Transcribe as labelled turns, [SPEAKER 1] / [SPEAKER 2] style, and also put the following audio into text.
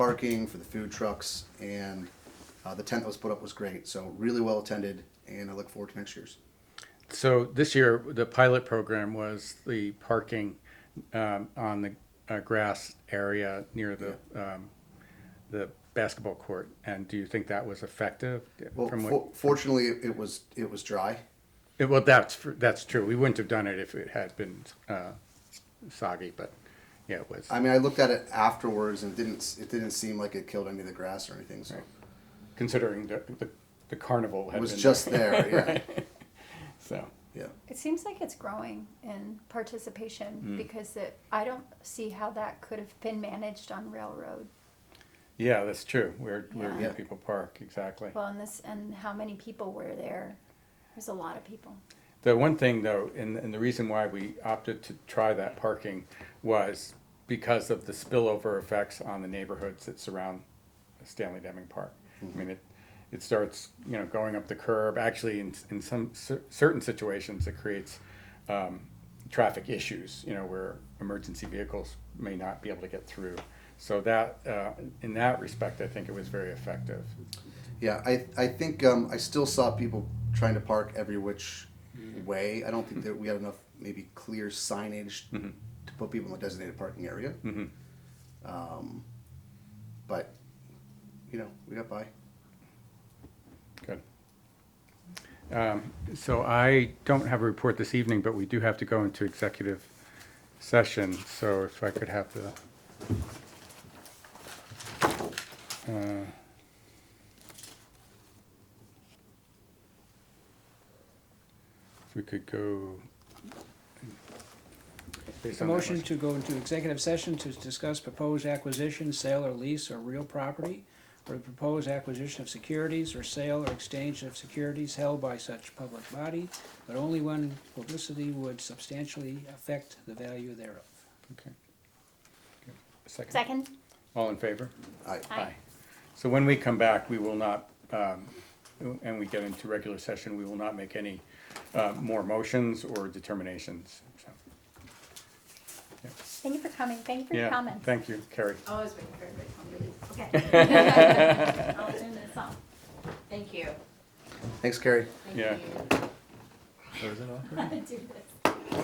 [SPEAKER 1] parking, for the food trucks, and uh, the tent that was put up was great. So really well attended, and I look forward to next year's.
[SPEAKER 2] So this year, the pilot program was the parking um, on the uh, grass area near the um, the basketball court. And do you think that was effective?
[SPEAKER 1] Well,
[SPEAKER 2] from what,
[SPEAKER 1] for- fortunately, it it was it was dry.
[SPEAKER 2] it- well, that's fr- that's true. We wouldn't have done it if it had been uh, soggy, but yeah, it was.
[SPEAKER 1] I mean, I looked at it afterwards, and it didn't it didn't seem like it killed any of the grass or anything. So
[SPEAKER 2] considering the, the the carnival had
[SPEAKER 1] it was
[SPEAKER 2] been
[SPEAKER 1] just there. Yeah,
[SPEAKER 2] so.
[SPEAKER 1] yeah.
[SPEAKER 3] It seems like it's growing in participation
[SPEAKER 2] Hmm.
[SPEAKER 3] because it, I don't see how that could have been managed on railroad.
[SPEAKER 2] Yeah, that's true. Where where
[SPEAKER 3] Yeah.
[SPEAKER 2] people park exactly.
[SPEAKER 3] Well, and this and how many people were there? There's a lot of people.
[SPEAKER 2] The one thing though, and, and the reason why we opted to try that parking was because of the spillover effects on the neighborhoods that surround Stanley Deming Park. I mean, it, it starts, you know, going up the curb, actually in, in some cer- certain situations, it creates, um, traffic issues, you know, where emergency vehicles may not be able to get through. So that, uh, in that respect, I think it was very effective.
[SPEAKER 1] Yeah, I, I think um, I still saw people trying to park every which way. I don't think that we had enough maybe clear signage to put people in the designated parking area. Um, but you know, we got by.
[SPEAKER 2] Good. Um, So I don't have a report this evening, but we do have to go into executive session, so if I could have the. uh, If we could go. based
[SPEAKER 4] A
[SPEAKER 2] on that
[SPEAKER 4] motion to go into executive session to discuss proposed acquisition, sale or lease or real property, or the proposed acquisition of securities or sale or exchange of securities held by such public body, but only when publicity would substantially affect the value thereof.
[SPEAKER 2] Okay. Good. Second,
[SPEAKER 3] Second?
[SPEAKER 2] all in favor?
[SPEAKER 1] I,
[SPEAKER 2] Aye. So when we come back, we will not, um, and we get into regular session, we will not make any uh, more motions or determinations. so.
[SPEAKER 3] Thank you for coming. Thank you for your
[SPEAKER 2] Yeah,
[SPEAKER 3] comments.
[SPEAKER 2] thank you, Carrie.
[SPEAKER 5] I was waiting for everybody to come release. Okay.
[SPEAKER 3] I'll turn this off.
[SPEAKER 5] Thank you.
[SPEAKER 1] thanks, Carrie.
[SPEAKER 5] Thank
[SPEAKER 2] Yeah.
[SPEAKER 5] you.
[SPEAKER 6] Frozen off?
[SPEAKER 3] Do this.